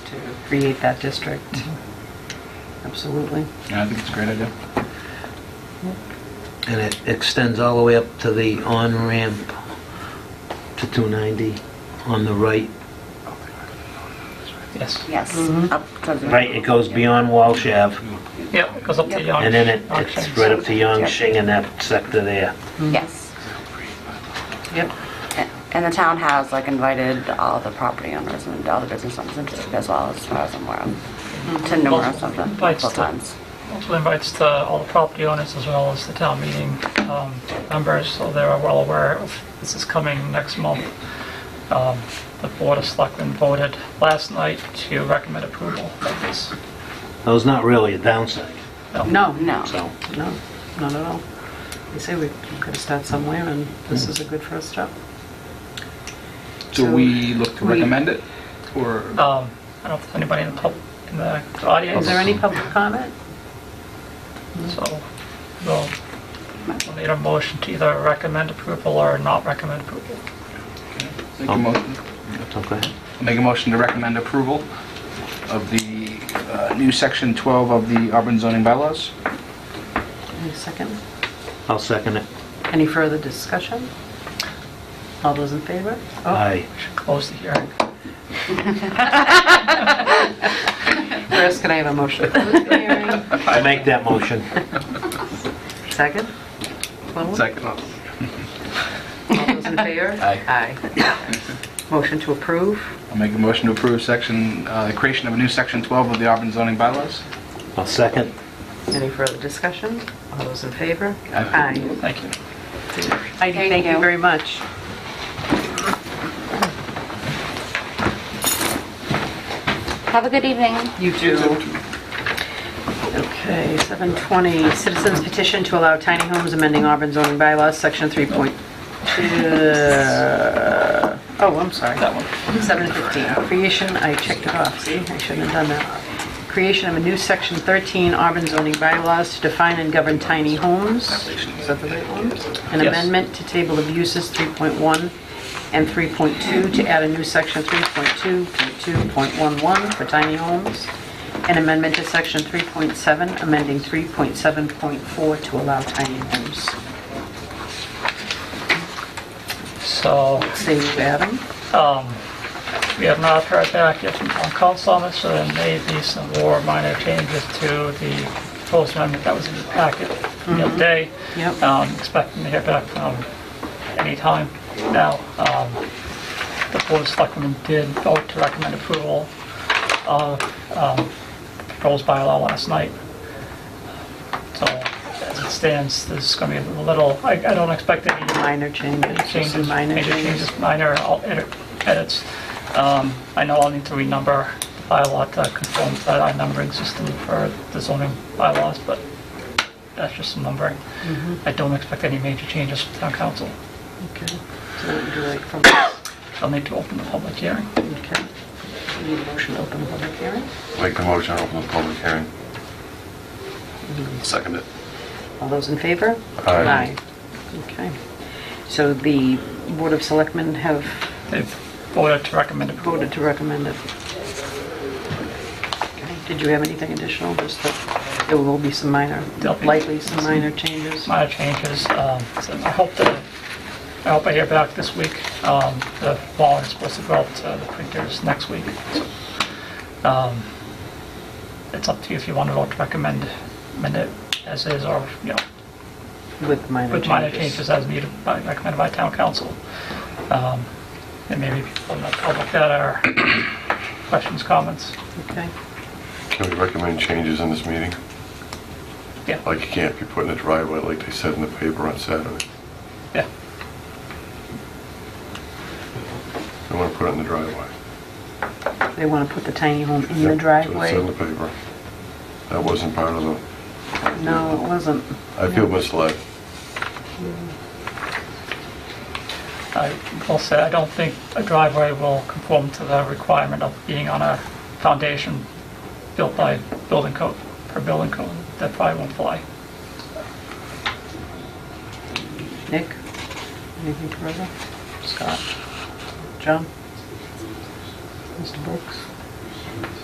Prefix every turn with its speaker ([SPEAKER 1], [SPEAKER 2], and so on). [SPEAKER 1] to create that district. Mm-hmm. Absolutely.
[SPEAKER 2] Yeah, I think it's a great idea.
[SPEAKER 3] And it extends all the way up to the on-ramp to 290 on the right.
[SPEAKER 4] Yes.
[SPEAKER 5] Yes,
[SPEAKER 1] Mhm.
[SPEAKER 5] up to the...
[SPEAKER 3] Mm-hmm. Right, it goes beyond Walsh Ave,
[SPEAKER 4] Yep, it goes up to
[SPEAKER 5] Yep.
[SPEAKER 4] Yonge.
[SPEAKER 3] and then it
[SPEAKER 4] Yonge
[SPEAKER 3] it's
[SPEAKER 4] Shins.
[SPEAKER 3] right up to Yangshing and that sector there.
[SPEAKER 5] Yes.
[SPEAKER 1] Yep.
[SPEAKER 5] A- And the town has, like, invited all the property owners and all the business owners into it as well, as far as I'm aware, of, to numerous of them,
[SPEAKER 4] Bites
[SPEAKER 5] multiple
[SPEAKER 4] the-
[SPEAKER 5] times.
[SPEAKER 4] Also invites the, all the property owners as well as the town meeting um, members, so they're well aware of, this is coming next month. Um, The Board of Selectmen voted last night to recommend approval of this.
[SPEAKER 3] Though it's not really a downside,
[SPEAKER 1] No,
[SPEAKER 5] No.
[SPEAKER 3] so.
[SPEAKER 1] no, not at all. You say we could start somewhere, and this is a good first step.
[SPEAKER 2] Do
[SPEAKER 1] So
[SPEAKER 2] we look to
[SPEAKER 1] we-
[SPEAKER 2] recommend it, or?
[SPEAKER 4] Um, I don't know if there's anybody in the pub, in the
[SPEAKER 1] Is
[SPEAKER 4] audience,
[SPEAKER 1] there any public comment?
[SPEAKER 4] so we'll we'll need a motion to either recommend approval or not recommend approval.
[SPEAKER 2] Make a motion,
[SPEAKER 3] Okay.
[SPEAKER 2] make a motion to recommend approval of the uh, new section 12 of the Auburn zoning bylaws?
[SPEAKER 1] Any second?
[SPEAKER 3] I'll second it.
[SPEAKER 1] Any further discussion? All those in favor? Oh,
[SPEAKER 3] Aye.
[SPEAKER 4] We should close the hearing.
[SPEAKER 1] First, can I have a motion? to close the hearing?
[SPEAKER 3] I make that motion.
[SPEAKER 1] Second? Close?
[SPEAKER 2] Second.
[SPEAKER 1] All those in favor?
[SPEAKER 2] Aye.
[SPEAKER 1] Aye. Motion to approve?
[SPEAKER 2] I'll make a motion to approve section, uh, the creation of a new section 12 of the Auburn zoning bylaws.
[SPEAKER 3] I'll second.
[SPEAKER 1] Any further discussion? All those in favor?
[SPEAKER 2] Aye.
[SPEAKER 4] Thank you.
[SPEAKER 1] Heidi, thank you
[SPEAKER 5] you.
[SPEAKER 1] very much.
[SPEAKER 5] Have a good evening.
[SPEAKER 1] You too. Okay, 720, citizens petition to allow tiny homes amending Auburn zoning bylaws, section 3.2. Oh, I'm sorry.
[SPEAKER 4] That one.
[SPEAKER 1] 715, creation, I checked it off, see, I shouldn't have done that. Creation of a new section 13 Auburn zoning bylaws to define and govern tiny homes. Is that the right one? An
[SPEAKER 4] Yes.
[SPEAKER 1] amendment to table of uses 3.1 and 3.2 to add a new section 3.2.2.11 for tiny homes. An amendment to section 3.7, amending 3.7.4 to allow tiny homes.
[SPEAKER 4] So
[SPEAKER 1] Say, Adam?
[SPEAKER 4] Um, We have not heard back yet from town council on this, so there may be some more minor changes to the proposed amendment that was in the packet the other day.
[SPEAKER 1] Yep.
[SPEAKER 4] Um, Expecting to hear back from any time now. Um, The board of selectmen did vote to recommend approval of um, proposed bylaw last night. So as it stands, there's going to be a little, I I don't expect any
[SPEAKER 1] Minor changes, just some
[SPEAKER 4] changes,
[SPEAKER 1] minor
[SPEAKER 4] major
[SPEAKER 1] changes.
[SPEAKER 4] changes, minor al- edit- edits. Um, I know I'll need to renumber the bylaw to conform to that numbering system for the zoning bylaws, but that's just some numbering. I don't expect any major changes from town council.
[SPEAKER 1] Okay. So what would you like from us?
[SPEAKER 4] I'll need to open the public hearing.
[SPEAKER 1] Okay. We Need a motion to open the public hearing?
[SPEAKER 6] Make the motion, open the public hearing. Second it.
[SPEAKER 1] All those in favor?
[SPEAKER 6] Aye.
[SPEAKER 1] Okay. So the Board of Selectmen have
[SPEAKER 4] They've voted to recommend approval.
[SPEAKER 1] voted to recommend it. Okay. Did you have anything additional? Just that there will be some minor,
[SPEAKER 4] There'll be
[SPEAKER 1] likely some minor changes?
[SPEAKER 4] minor changes. um, so I hope that, I hope I hear back this week. Um, The warrant is supposed to go out to the printers next week. so, um, It's up to you if you want to vote to recommend amend it as is or, you know,
[SPEAKER 1] With minor
[SPEAKER 4] with minor
[SPEAKER 1] changes?
[SPEAKER 4] changes as needed by, recommended by town council. Um, And maybe people in the public that are questions, comments.
[SPEAKER 1] Okay.
[SPEAKER 6] Can we recommend changes in this meeting?
[SPEAKER 4] Yeah,
[SPEAKER 6] Like you can't be put in a driveway like they said in the paper on Saturday.
[SPEAKER 4] yeah.
[SPEAKER 6] They want to put it in the driveway.
[SPEAKER 1] They want to put the tiny home in
[SPEAKER 6] Yep,
[SPEAKER 1] the
[SPEAKER 6] That's in the
[SPEAKER 1] driveway?
[SPEAKER 6] paper. That wasn't part of the,
[SPEAKER 1] No, it wasn't.
[SPEAKER 6] I feel misled.
[SPEAKER 4] I will say, I don't think a driveway will conform to the requirement of being on a foundation built by building code, per building code, that probably won't fly.
[SPEAKER 1] Nick? Anything further? Scott? John? Mr. Brooks?